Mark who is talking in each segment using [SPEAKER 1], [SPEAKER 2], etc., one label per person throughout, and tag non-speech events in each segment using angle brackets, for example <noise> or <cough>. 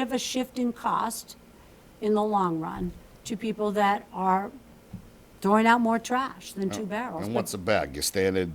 [SPEAKER 1] of a shift in cost in the long run to people that are throwing out more trash than two barrels.
[SPEAKER 2] Oh, And
[SPEAKER 1] But
[SPEAKER 2] what's a bag? Your standard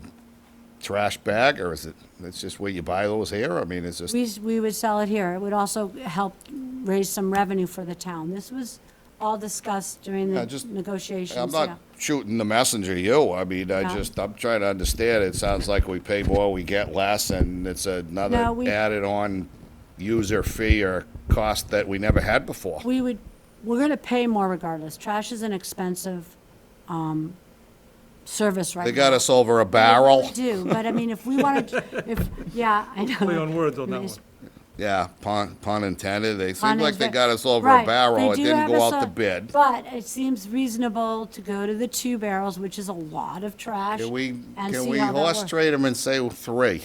[SPEAKER 2] trash bag, or is it, that's just where you buy those here? I mean, it's just,
[SPEAKER 1] We, s- we would sell it here. It would also help raise some revenue for the town. This was all discussed during
[SPEAKER 2] Yeah,
[SPEAKER 1] the
[SPEAKER 2] just-
[SPEAKER 1] negotiations.
[SPEAKER 2] I'm
[SPEAKER 1] yeah.
[SPEAKER 2] not shooting the messenger to you. I mean, I
[SPEAKER 1] No.
[SPEAKER 2] just, I'm trying to understand. It sounds like we pay more, we get less, and it's
[SPEAKER 1] No,
[SPEAKER 2] another
[SPEAKER 1] we-
[SPEAKER 2] added on user fee or cost that we never had before.
[SPEAKER 1] We would, we're gonna pay more regardless. Trash is an expensive, um, service right now.
[SPEAKER 2] They got us over a
[SPEAKER 1] They really
[SPEAKER 2] barrel.
[SPEAKER 1] Do, but I mean, if we
[SPEAKER 2] <laughs>
[SPEAKER 1] wanted, if, yeah, I know.
[SPEAKER 3] Play on words on that one.
[SPEAKER 2] Yeah, pun, pun intended. They
[SPEAKER 1] Pun
[SPEAKER 2] seemed like they
[SPEAKER 1] intended.
[SPEAKER 2] got us over a
[SPEAKER 1] Right,
[SPEAKER 2] barrel.
[SPEAKER 1] they
[SPEAKER 2] It
[SPEAKER 1] do
[SPEAKER 2] didn't
[SPEAKER 1] have
[SPEAKER 2] go
[SPEAKER 1] us
[SPEAKER 2] out
[SPEAKER 1] a-
[SPEAKER 2] to bid.
[SPEAKER 1] But it seems reasonable to go to the two barrels, which is a lot of trash.
[SPEAKER 2] Can we,
[SPEAKER 1] and
[SPEAKER 2] can
[SPEAKER 1] see
[SPEAKER 2] we
[SPEAKER 1] how that
[SPEAKER 2] horse
[SPEAKER 1] works.
[SPEAKER 2] trade them and say three?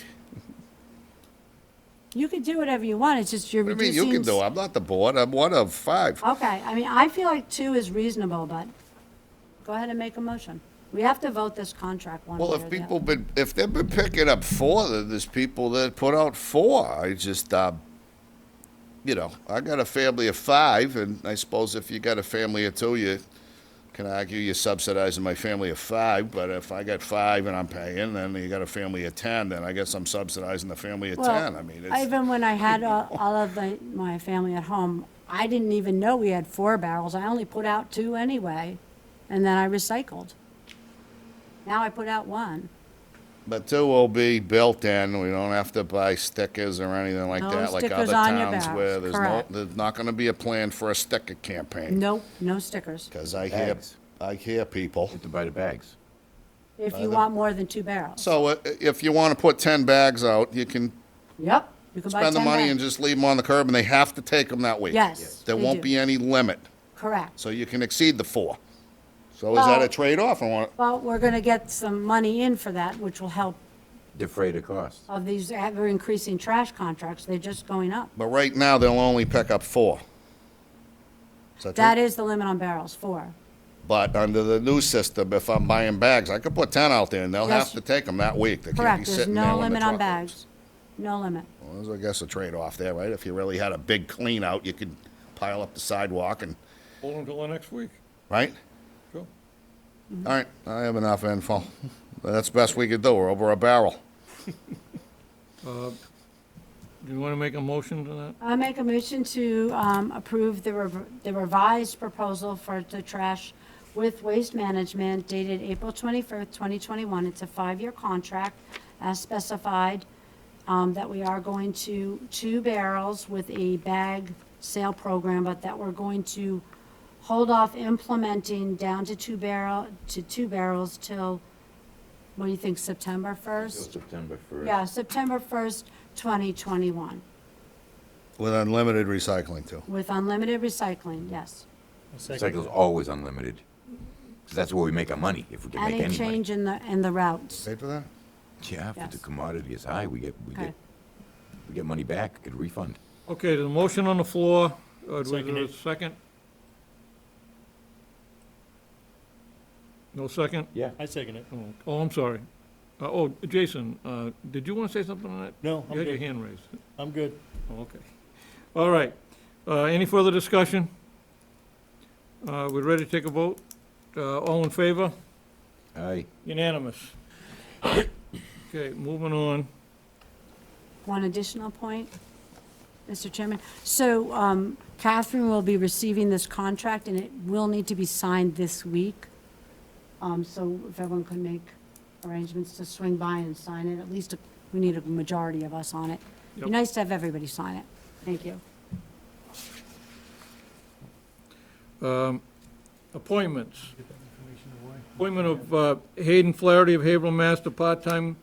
[SPEAKER 1] You could do whatever you want, it's just you're
[SPEAKER 2] What do
[SPEAKER 1] reducing.
[SPEAKER 2] you mean you can do?
[SPEAKER 1] s-
[SPEAKER 2] I'm not the board. I'm one of five.
[SPEAKER 1] Okay, I mean, I feel like two is reasonable, but go ahead and make a motion. We have to vote this contract one way
[SPEAKER 2] Well,
[SPEAKER 1] or the
[SPEAKER 2] if
[SPEAKER 1] other.
[SPEAKER 2] people been, if they've been picking up four, then there's people that put out four. I just, uh, you know, I got a family of five, and I suppose if you got a family of two, you can argue you're subsidizing my family of five. But if I got five and I'm paying, then you got a family of ten, then I guess I'm subsidizing the family of ten. I mean, it's,
[SPEAKER 1] Even when I had all all of the, my family at home, I didn't even know we had four barrels. I only put out two anyway, and then I recycled. Now I put out one.
[SPEAKER 2] but two will be built in. We don't have to buy stickers or anything like
[SPEAKER 1] No
[SPEAKER 2] that, like
[SPEAKER 1] stickers
[SPEAKER 2] other
[SPEAKER 1] on your
[SPEAKER 2] towns
[SPEAKER 1] bags,
[SPEAKER 2] where there's
[SPEAKER 1] correct.
[SPEAKER 2] no, there's not going to be a plan for a sticker campaign.
[SPEAKER 1] Nope, no stickers.
[SPEAKER 2] Because I hear,
[SPEAKER 4] Bags.
[SPEAKER 2] I hear people.
[SPEAKER 4] to buy the bags.
[SPEAKER 1] If you want more than two barrels.
[SPEAKER 2] So uh, if you want to put 10 bags out, you can
[SPEAKER 1] Yep. You can buy
[SPEAKER 2] spend the
[SPEAKER 1] 10
[SPEAKER 2] money
[SPEAKER 1] bags.
[SPEAKER 2] and just leave them on the curb, and they have to take them that week.
[SPEAKER 1] Yes,
[SPEAKER 2] There
[SPEAKER 1] they
[SPEAKER 2] won't
[SPEAKER 1] do.
[SPEAKER 2] be any limit,
[SPEAKER 1] Correct.
[SPEAKER 2] so you can exceed the four. So is that a
[SPEAKER 1] Well-
[SPEAKER 2] trade-off? I want,
[SPEAKER 1] Well, we're going to get some money in for that, which will help
[SPEAKER 4] Defray the cost.
[SPEAKER 1] of these ever-increasing trash contracts. They're just going up.
[SPEAKER 2] but right now, they'll only pick up four. Is that true?
[SPEAKER 1] That is the limit on barrels, four.
[SPEAKER 2] But under the new system, if I'm buying bags, I could put 10 out there, and they'll
[SPEAKER 1] Yes.
[SPEAKER 2] have to take them that week. They can't be
[SPEAKER 1] Correct. There's
[SPEAKER 2] sitting there
[SPEAKER 1] no
[SPEAKER 2] when the
[SPEAKER 1] limit on
[SPEAKER 2] truck leaves.
[SPEAKER 1] bags. No limit.
[SPEAKER 2] Well, there's, I guess, a trade-off there, right? If you really had a big clean-out, you could pile up the sidewalk and,
[SPEAKER 3] Hold until the next week.
[SPEAKER 2] right?
[SPEAKER 3] Sure.
[SPEAKER 1] Mm-hmm.
[SPEAKER 2] All right, I have enough info. That's the best we could do, we're over a barrel.
[SPEAKER 3] Do you want to make a motion to that?
[SPEAKER 1] I make a motion to um, approve the rev- the revised proposal for the trash with waste management dated April 21st, 2021. It's a five-year contract as specified, um, that we are going to two barrels with a bag sale program, but that we're going to hold off implementing down to two barrel, to two barrels till, what do you think, September 1st?
[SPEAKER 4] September 1st.
[SPEAKER 1] Yeah, September 1st, 2021,
[SPEAKER 2] With unlimited recycling, too.
[SPEAKER 1] with unlimited recycling, yes.
[SPEAKER 4] Recycle's always unlimited. 'Cause that's where we make our money, if we can make
[SPEAKER 1] Any
[SPEAKER 4] any money.
[SPEAKER 1] change in the, in the routes.
[SPEAKER 2] Paid for that?
[SPEAKER 4] Yeah, if the
[SPEAKER 1] Yes.
[SPEAKER 4] commodity is high, we get, we
[SPEAKER 1] Okay.
[SPEAKER 4] get, we get money back, get a refund.
[SPEAKER 3] Okay, there's a motion on the floor. Uh, Do we do a second? No second?
[SPEAKER 4] Yeah.
[SPEAKER 5] I second it.
[SPEAKER 3] Oh, Oh, I'm sorry. Uh, Oh, Jason, uh, did you want to say something on that?
[SPEAKER 5] No,
[SPEAKER 3] You
[SPEAKER 5] I'm
[SPEAKER 3] had your
[SPEAKER 5] good.
[SPEAKER 3] hand raised.
[SPEAKER 5] I'm good.
[SPEAKER 3] Oh, Okay. All right. Uh, Any further discussion? Uh, We're ready to take a vote? Uh, All in favor?
[SPEAKER 4] Aye.
[SPEAKER 3] Unanimous. Okay, moving on.
[SPEAKER 1] One additional point, Mr. Chairman. So um, Catherine will be receiving this contract, and it will need to be signed this week. Um, So if everyone could make arrangements to swing by and sign it, at least we need a majority of us on it. Be
[SPEAKER 3] Yep.
[SPEAKER 1] nice to have everybody sign it. Thank you.
[SPEAKER 3] Um, Appointments. Appointment of uh, Hayden Flaherty of Haverhill, Mass. to part-time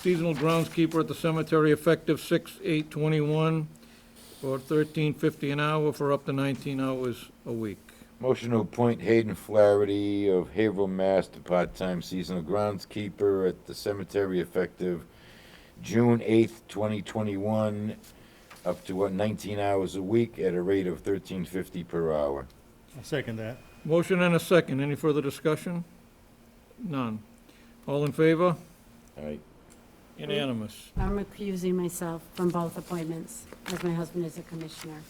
[SPEAKER 3] seasonal groundskeeper at the cemetery effective 6/8/21 for 13.50 an hour for up to 19 hours a week.
[SPEAKER 4] Motion to appoint Hayden Flaherty of Haverhill, Mass. to part-time seasonal groundskeeper at the cemetery effective June eighth, twenty twenty-one, up to what, nineteen hours a week at a rate of thirteen fifty per hour.
[SPEAKER 5] I second that.
[SPEAKER 3] Motion and a second. Any further discussion? None. All in favor?
[SPEAKER 4] Aye.
[SPEAKER 3] Unanimous.
[SPEAKER 1] I'm recusing myself from both appointments, as my husband is a commissioner.